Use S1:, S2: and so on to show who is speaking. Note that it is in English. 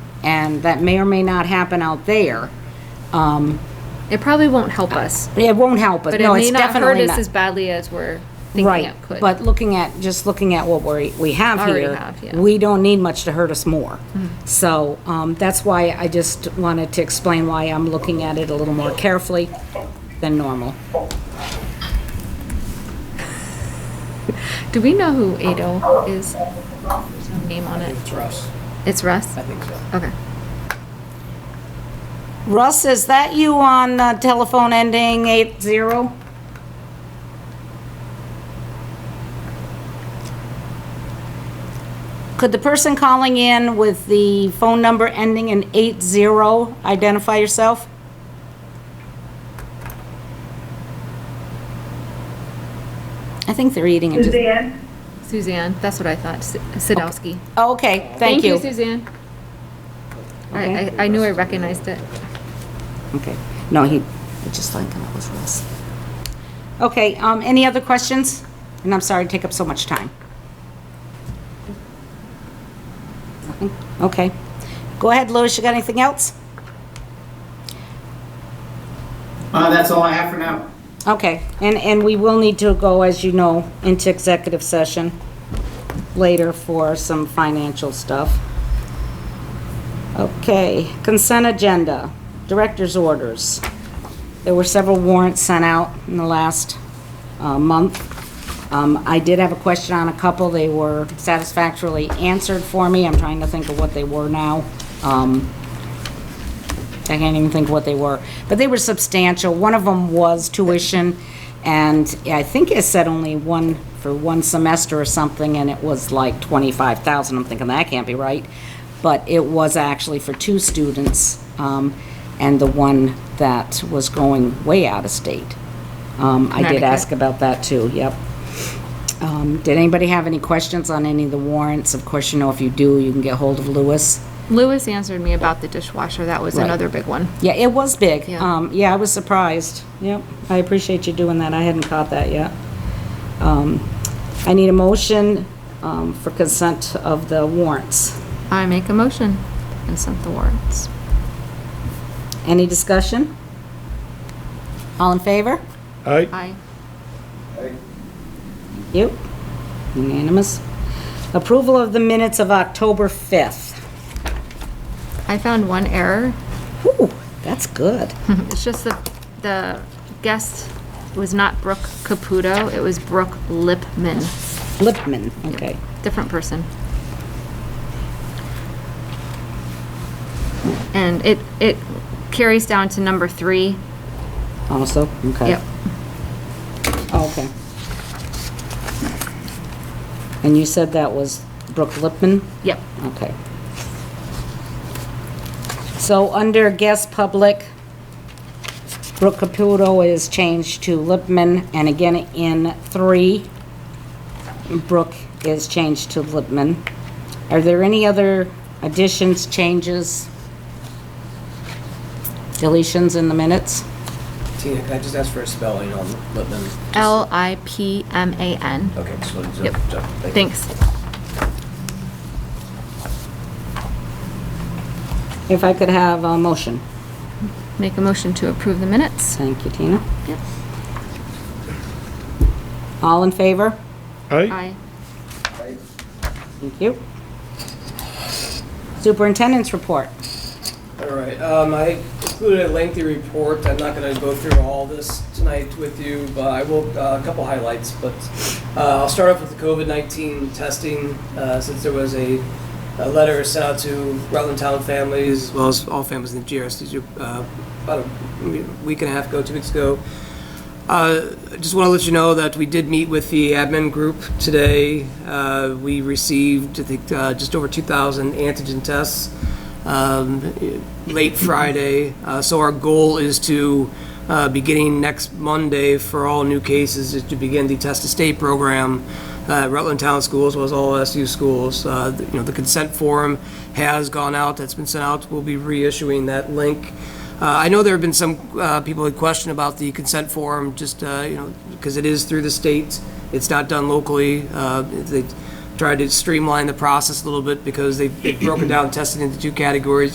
S1: and that may or may not happen out there,
S2: It probably won't help us,
S1: it won't help us.
S2: but it
S1: No,
S2: may
S1: it's
S2: not hurt
S1: definitely
S2: us as
S1: not.
S2: badly as we're thinking
S1: Right,
S2: it could.
S1: but looking at, just looking at what we, we have
S2: Already
S1: here,
S2: have, yeah. Mm-hmm.
S1: we don't need much to hurt us more. So, um, that's why I just wanted to explain why I'm looking at it a little more carefully than normal.
S2: Do we know who Ado is? There's no name on it.
S3: It's Russ,
S2: It's Russ?
S3: I think so.
S2: Okay.
S1: Russ, is that you on uh, telephone ending eight zero? Could the person calling in with the phone number ending in eight zero identify yourself? I think they're eating it.
S4: Suzanne?
S2: Suzanne, that's what I thought. Si- Sadowski.
S1: Okay, thank you.
S2: Suzanne. I, I, I knew I recognized it.
S1: Okay, no, he, I just like that was Russ. Okay, um, any other questions? And I'm sorry to take up so much time. Nothing? Okay. Go ahead, Louis, you got anything else?
S3: Uh, that's all I have for now.
S1: Okay, and, and we will need to go, as you know, into executive session later for some financial stuff. Okay, consent agenda, director's orders. There were several warrants sent out in the last uh, month. Um, I did have a question on a couple, they were satisfactorily answered for me, I'm trying to think of what they were now. Um, I can't even think what they were, but they were substantial. One of them was tuition, and I think it said only one, for one semester or something, and it was like 25,000. I'm thinking, that can't be right. But it was actually for two students, um, and the one that was going way out of state. Um, I did
S2: Connecticut.
S1: ask about that too, yep. Um, did anybody have any questions on any of the warrants? Of course, you know, if you do, you can get hold of Lewis.
S2: Lewis answered me about the dishwasher. That was another big one.
S1: Yeah, it was big.
S2: Yeah.
S1: Um, yeah, I was surprised. Yep, I appreciate you doing that. I hadn't caught that yet. Um, I need a motion, um, for consent of the warrants.
S2: I make a motion and sent the warrants.
S1: Any discussion? All in favor?
S5: Aye.
S2: Aye.
S1: Yep, unanimous. Approval of the minutes of October 5th.
S2: I found one error.
S1: Ooh, that's good.
S2: It's just the, the guest was not Brooke Caputo. It was Brooke Lipman,
S1: Lipman, okay.
S2: different person. And it, it carries down to number three.
S1: Also, okay. Oh,
S2: Yep.
S1: Okay. And you said that was Brooke Lipman?
S2: Yep.
S1: Okay. So under guest public, Brooke Caputo is changed to Lipman, and again in three, Brooke is changed to Lipman. Are there any other additions, changes, deletions in the minutes?
S3: Tina, can I just ask for a spelling on Lipman? Just-
S2: L I P M A N.
S3: Okay, just wanted to.
S2: Yep.
S3: so, thank you.
S2: Thanks.
S1: If I could have a motion.
S2: Make a motion to approve the minutes.
S1: Thank you, Tina.
S2: Yep.
S1: All in favor?
S5: Aye.
S2: Aye.
S1: Thank you. Superintendent's report.
S6: All right, um, I included a lengthy report, I'm not gonna go through all this tonight with you, but I will, uh, a couple highlights, but, uh, I'll start off with the COVID-19 testing, uh, since there was a, a letter sent out to Rutland Town families, as well as all families in the GRSD, uh, about a week and a half ago, two weeks ago, uh, I Just want to let you know that we did meet with the admin group today. Uh, We received, I think, uh, just over 2,000 antigen tests um, late Friday. Uh, So our goal is to, uh, beginning next Monday for all new cases, is to begin the Test to State program uh, at Rutland Town Schools, as well as all SU schools. Uh, You know, the consent form has gone out, that's been sent out, we'll be reissuing that link. Uh, I know there have been some uh, people who question about the consent form, just, uh, you know, because it is through the state. It's not done locally. Uh, They tried to streamline the process a little bit because they- they've broken down testing into two categories.